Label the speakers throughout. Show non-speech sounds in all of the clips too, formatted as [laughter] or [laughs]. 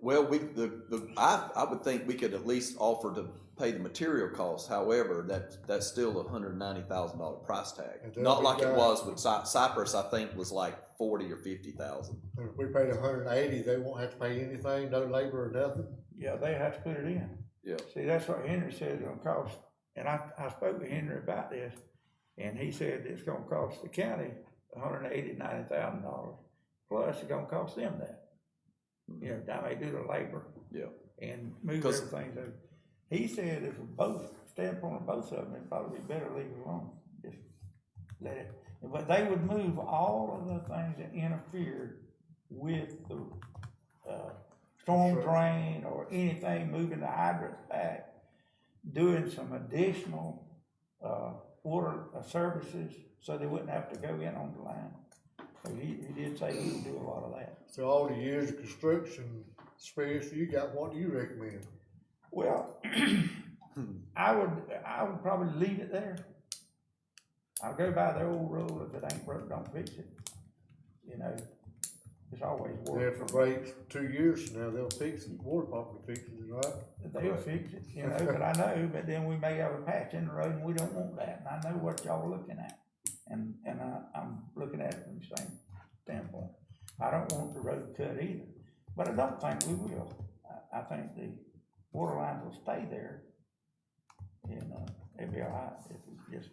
Speaker 1: Well, we, the, the, I, I would think we could at least offer to pay the material costs, however, that, that's still a hundred and ninety thousand dollar price
Speaker 2: And
Speaker 1: tag.
Speaker 2: then
Speaker 1: Not
Speaker 2: we
Speaker 1: like it
Speaker 2: got-
Speaker 1: was with Cy- Cypress, I think was like forty or fifty thousand.
Speaker 2: And if we paid a hundred and eighty, they won't have to pay anything, no labor or nothing.
Speaker 3: Yeah, they have to put it in.
Speaker 1: Yeah.
Speaker 3: See, that's what Henry said it's gonna cost, and I, I spoke to Henry about this, and he said it's gonna cost the county a hundred and eighty, ninety thousand dollars. Plus, it's gonna cost them that, you know, that may do the labor.
Speaker 1: Yeah.
Speaker 3: And move
Speaker 1: 'Cause-
Speaker 3: everything, so, he said if both, standpoint of both of them, it'd probably be better leave it alone, just let it. But they would move all of the things that interfered with the, uh, storm
Speaker 2: Sure.
Speaker 3: drain or anything, moving the hydrants back, doing some additional, uh, water uh, services, so they wouldn't have to go in on the line. So he, he did say he would do a lot of that.
Speaker 2: So all the years of construction, especially you got, what do you recommend?
Speaker 3: Well, I would, I would probably leave it there. I'll go by the old rule, if it ain't broke, don't fix it. You know, it's always
Speaker 2: If
Speaker 3: worth,
Speaker 2: it breaks two years from now, they'll fix it, water department fixes it, right?
Speaker 3: they'll fix it, you know, but I know, but then we may have a patch in the road and we don't want that, and I know what y'all are looking at. And, and I, I'm looking at it from the same standpoint. I don't want the road cut either, but I don't think we will. I, I think the water lines will stay there. And, uh, it'll be all right if we just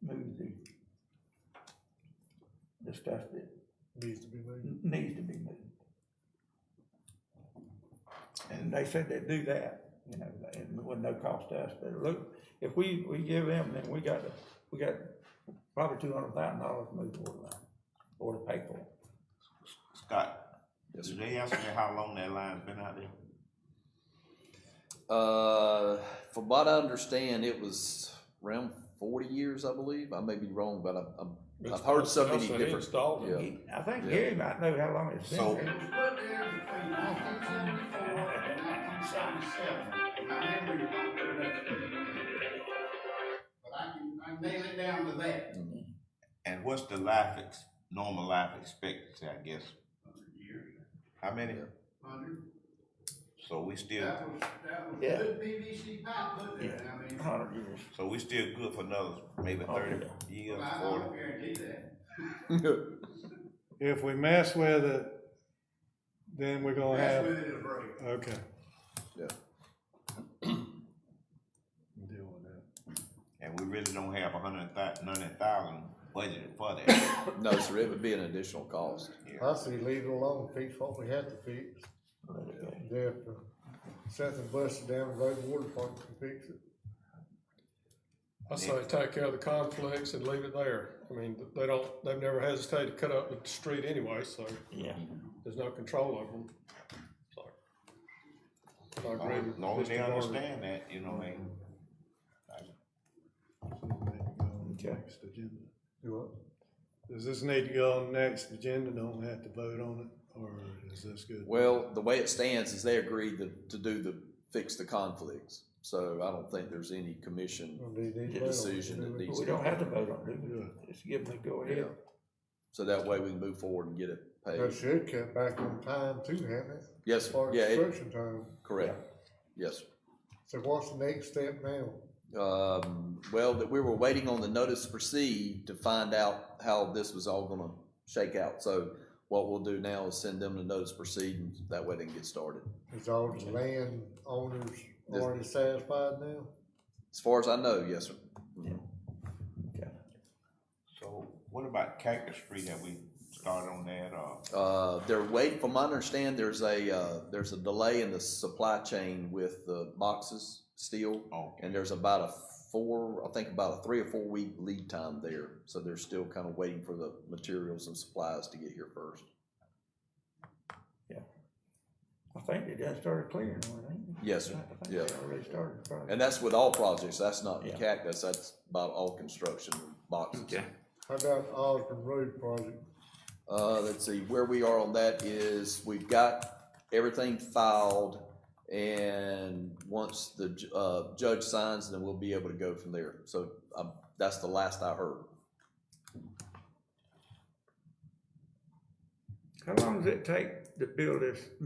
Speaker 3: move the, the stuff that
Speaker 2: Needs to be moved.
Speaker 3: n- needs to be moved. And they said they'd do that, you know, and with no cost to us, but look, if we, we give them, then we got, to- we got probably two hundred thousand dollars to move forward line, or to pay for it.
Speaker 4: Scott,
Speaker 1: Yes,
Speaker 4: did they ask me how long that line's been out there?
Speaker 1: Uh, from what I understand, it was around forty years, I believe. I may be wrong, but I'm, I'm, I've heard so many different.
Speaker 5: Installed
Speaker 1: Yeah.
Speaker 5: it.
Speaker 3: He- I think
Speaker 1: Yeah.
Speaker 3: Gary might know how long it's
Speaker 4: So-
Speaker 3: been there.
Speaker 6: was put there between nineteen seventy-four and nineteen seventy-seven. I remember you don't put it up. But I can, I can nail it down to that.
Speaker 4: And what's the life ex, normal life expectancy, I guess?
Speaker 6: Hundred years.
Speaker 4: How many?
Speaker 6: Hundred.
Speaker 4: So we still,
Speaker 6: That was, that was
Speaker 3: Yeah.
Speaker 6: good PVC pipe put there, and I mean, I-
Speaker 3: Hundred years.
Speaker 4: so we still good for another maybe
Speaker 3: Oh,
Speaker 4: thirty years,
Speaker 6: I
Speaker 4: forty?
Speaker 6: don't guarantee that.
Speaker 7: If we mess with it, then we're gonna
Speaker 6: That's
Speaker 7: have,
Speaker 6: with it a break.
Speaker 7: okay.
Speaker 1: [laughs] Yeah.
Speaker 7: Deal with that.
Speaker 4: And we really don't have a hundred thou- ninety thousand budgeted for that.
Speaker 1: No, sir, it would be an additional cost.
Speaker 2: I say leave it alone, fix what we have to fix.
Speaker 3: Let it go.
Speaker 2: Then if something busted down the road, water department can fix it.
Speaker 7: I say take care of the conflicts and leave it there. I mean, they don't, they've never hesitated to cut up the street anyway, so
Speaker 3: Yeah,
Speaker 7: there's no control over them. So. I agree
Speaker 4: As
Speaker 7: with
Speaker 4: long as
Speaker 7: Mr.
Speaker 4: they
Speaker 7: Barber.
Speaker 4: understand that, you know, they,
Speaker 3: okay.
Speaker 2: Do what?
Speaker 7: Does this need to go on the next agenda? Don't we have to vote on it, or is this good?
Speaker 1: Well, the way it stands is they agreed to, to do the, fix the conflicts. So I don't think there's any commission.
Speaker 2: Or do you need
Speaker 1: The
Speaker 2: to-
Speaker 1: decision that
Speaker 3: But
Speaker 1: needs-
Speaker 3: we don't have to vote on it, just give them the go ahead.
Speaker 1: So that way we can move forward and get it
Speaker 2: That
Speaker 1: paid.
Speaker 2: should cut back on time too, hadn't it?
Speaker 1: Yes,
Speaker 2: For
Speaker 1: sir. yeah, it-
Speaker 2: construction time.
Speaker 1: correct. Yes. sir.
Speaker 2: So what's the next step now?
Speaker 1: Um, well, that we were waiting on the notice to proceed to find out how this was all gonna shake out. So what we'll do now is send them the notice to proceed and that way they can get started.
Speaker 2: Is all the land owners already satisfied now?
Speaker 1: As far as I know, yes, sir.
Speaker 4: so what about Cactus Street? Have we started on that or?
Speaker 1: Uh, they're wait, from my understand, there's a, uh, there's a delay in the supply chain with the boxes still.
Speaker 4: Oh,
Speaker 1: And there's about a four, I think about a three or four week lead time there. So they're still kind of waiting for the materials and supplies to get here first.
Speaker 3: I think they just started clearing one, ain't they?
Speaker 1: Yes, sir.
Speaker 3: I think
Speaker 1: Yeah.
Speaker 3: they already started. probably.
Speaker 1: And that's with all projects. That's not the
Speaker 3: Yeah.
Speaker 1: cactus. That's about all construction boxes.
Speaker 2: How about the Osborne Road project?
Speaker 1: Uh, let's see, where we are on that is we've got everything filed and once the, ju- uh, judge signs, then we'll be able to go from there. So, um, that's the last I heard.
Speaker 3: How long does it take to build this